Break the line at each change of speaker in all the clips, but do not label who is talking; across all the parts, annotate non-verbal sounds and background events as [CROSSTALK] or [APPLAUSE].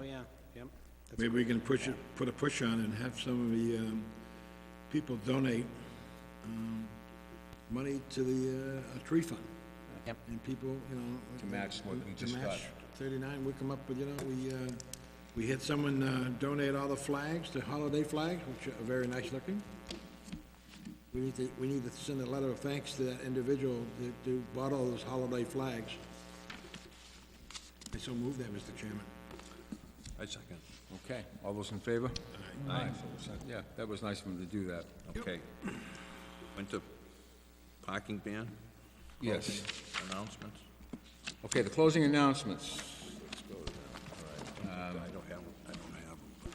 Oh, Yep. That's
Maybe we can push it, put a push on and have some of the, um, people donate, um, money to the, uh, a tree fund.
Yep.
And people, you know.
To match what we
to
just got.
match Thirty-nine, we come up with, you know, we, uh, we had someone, uh, donate all the flags, the holiday flags, which are very nice looking. We need to, we need to send a letter of thanks to that individual that, who bought all those holiday flags. I so move that, Mr. Chairman.
I second. Okay, all those in favor? Aye. Yeah, that was nice of him to do that.
Okay. Winter parking ban?
Yes.
Announcements?
Okay, the closing announcements.
I don't have, them. I don't have them.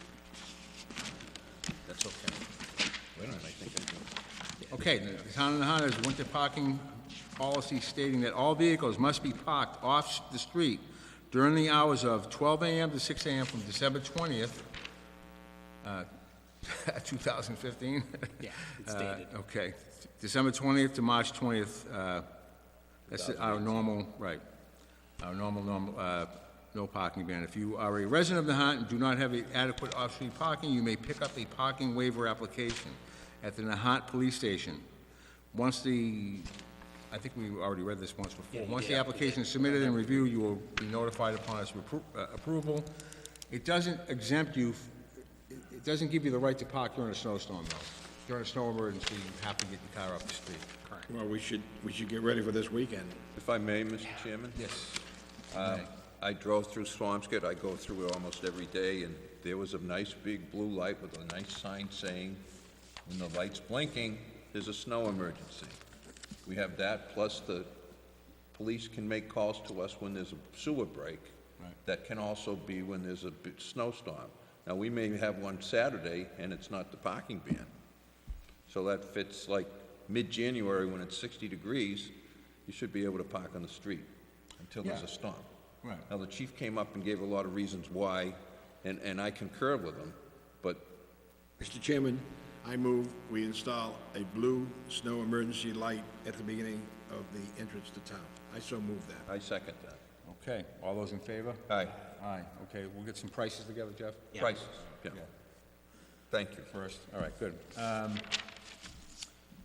but That's okay. Wait a minute, I think I do.
Okay, the town of Nahat has winter parking policy stating that all vehicles must be parked off the street during the hours of 12 AM to 6 AM from December 20th, uh, [LAUGHS] 2015?
Yeah, it's
Uh,
dated.
Okay, December 20th to March 20th, uh, that's our normal, right, our normal, normal, uh, no parking ban. If you are a resident of Nahat and do not have adequate off-street parking, you may pick up a parking waiver application at the Nahat Police Station. Once the, I think we already read this once before, once the application is submitted and reviewed, you will be notified upon its repro- uh, approval. It doesn't exempt you, f- it it doesn't give you the right to park during a snowstorm, though. During a snow emergency, you have to get your car off the street. Correct.
Well, we should, we should get ready for this weekend.
If I may, Mr. Chairman?
Yes.
I drove through Swampscott, I go through it almost every day, and there was a nice big blue light with a nice sign saying, when the light's blinking, there's a snow emergency. We have that, plus the police can make calls to us when there's a sewer break. That can also be when there's a big snowstorm. Now, we may have one Saturday, and it's not the parking ban. So that fits like mid-January, when it's 60 degrees, you should be able to park on the street until there's a storm.
Right.
Now, the chief came up and gave a lot of reasons why, and, and I concur with him, but
Mr. Chairman, I move we install a blue snow emergency light at the beginning of the entrance to town. I so move that.
I second that.
Okay, all those in favor?
Aye.
Aye, okay, we'll get some prices together, Jeff?
Prices, yeah. Thank you.
First, all right, good. Um,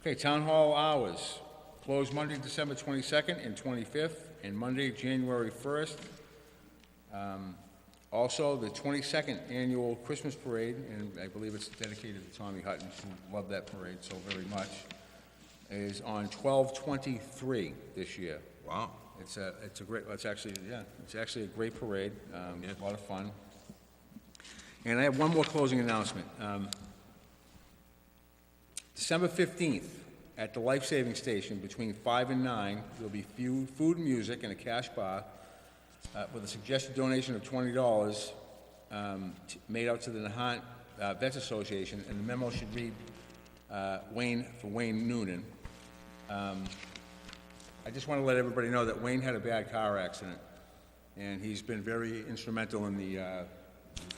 Okay, town hall hours, closed Monday, December 22nd and 25th, and Monday, January 1st. Um, Also, the 22nd annual Christmas parade, and I believe it's dedicated to Tommy Hutton, who loved that parade so very much, is on 12/23 this year.
Wow.
It's a, it's a great, it's actually, yeah, it's actually a great parade, um, a lot of fun. And I have one more closing announcement. Um, December fifteenth, at the Life Saving Station, between five and nine, there'll be few, food and music and a cash bar, uh, with a suggested donation of twenty dollars, um, t- made out to the Nahant uh, Vets Association, and the memo should read, uh, Wayne, for Wayne Noonan. Um, I just want to let everybody know that Wayne had a bad car accident, and he's been very instrumental in the, uh,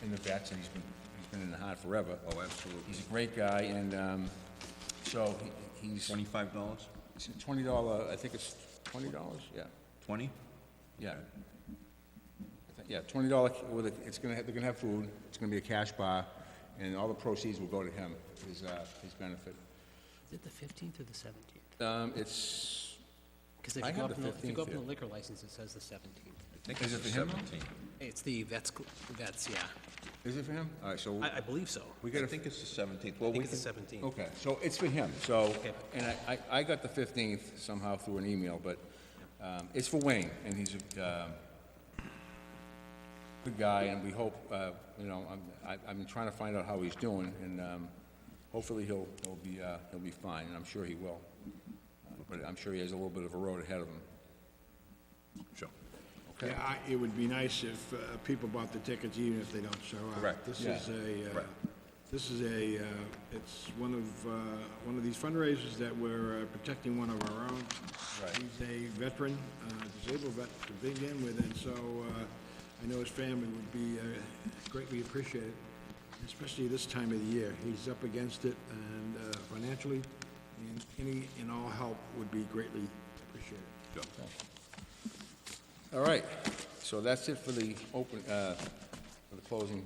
in the vets, and he's been, he's been in the heart forever.
Oh, absolutely.
He's a great guy, and, um, so he- he's,
Twenty-five dollars?
it's a twenty dollar, I think it's twenty dollars, yeah,
Twenty?
yeah. I think- Yeah, twenty dollar, with, a- it's gonna, have- they're gonna have food, it's gonna be a cash bar, and all the proceeds will go to him, his, uh, his benefit.
Is it the fifteenth or the seventeenth?
Um, it's,
Because if
I
you go
have
up,
the
in the- if you go up in
15th
the
here.
liquor license, it says the seventeenth.
I think
Is
it's
it for him?
seventeen.
It's the vets, cl- vets, yeah.
is it for him? All right, so.
I, I believe so.
we
I
gotta-
think it's the seventeenth. Well,
I think
we
it's the
can,
seventeenth.
Okay, so it's for him, so,
Okay.
and I, I I got the 15th somehow through an email, but um, it's for Wayne, and he's a um, good guy, and we hope, uh, you know, I'm, I- I'm trying to find out how he's doing, and um, hopefully he'll, he'll be, uh, he'll be fine, and I'm sure he will. Uh, But I'm sure he has a little bit of a road ahead of him.
sure.
Yeah, I, it would be nice if, uh, people bought the tickets even if they don't show up.
Correct.
This
Yeah.
is a, uh,
Right.
this is a, uh, it's one of, uh, one of these fundraisers that we're uh, protecting one of our own.
Right.
He's a veteran, uh, disabled vet to begin with, and so, uh, I know his family would be, uh, greatly appreciated, especially this time of the year. He's up against it and, uh, financially, and any and all help would be greatly appreciated.
All right, so that's it for the open, uh, for the closing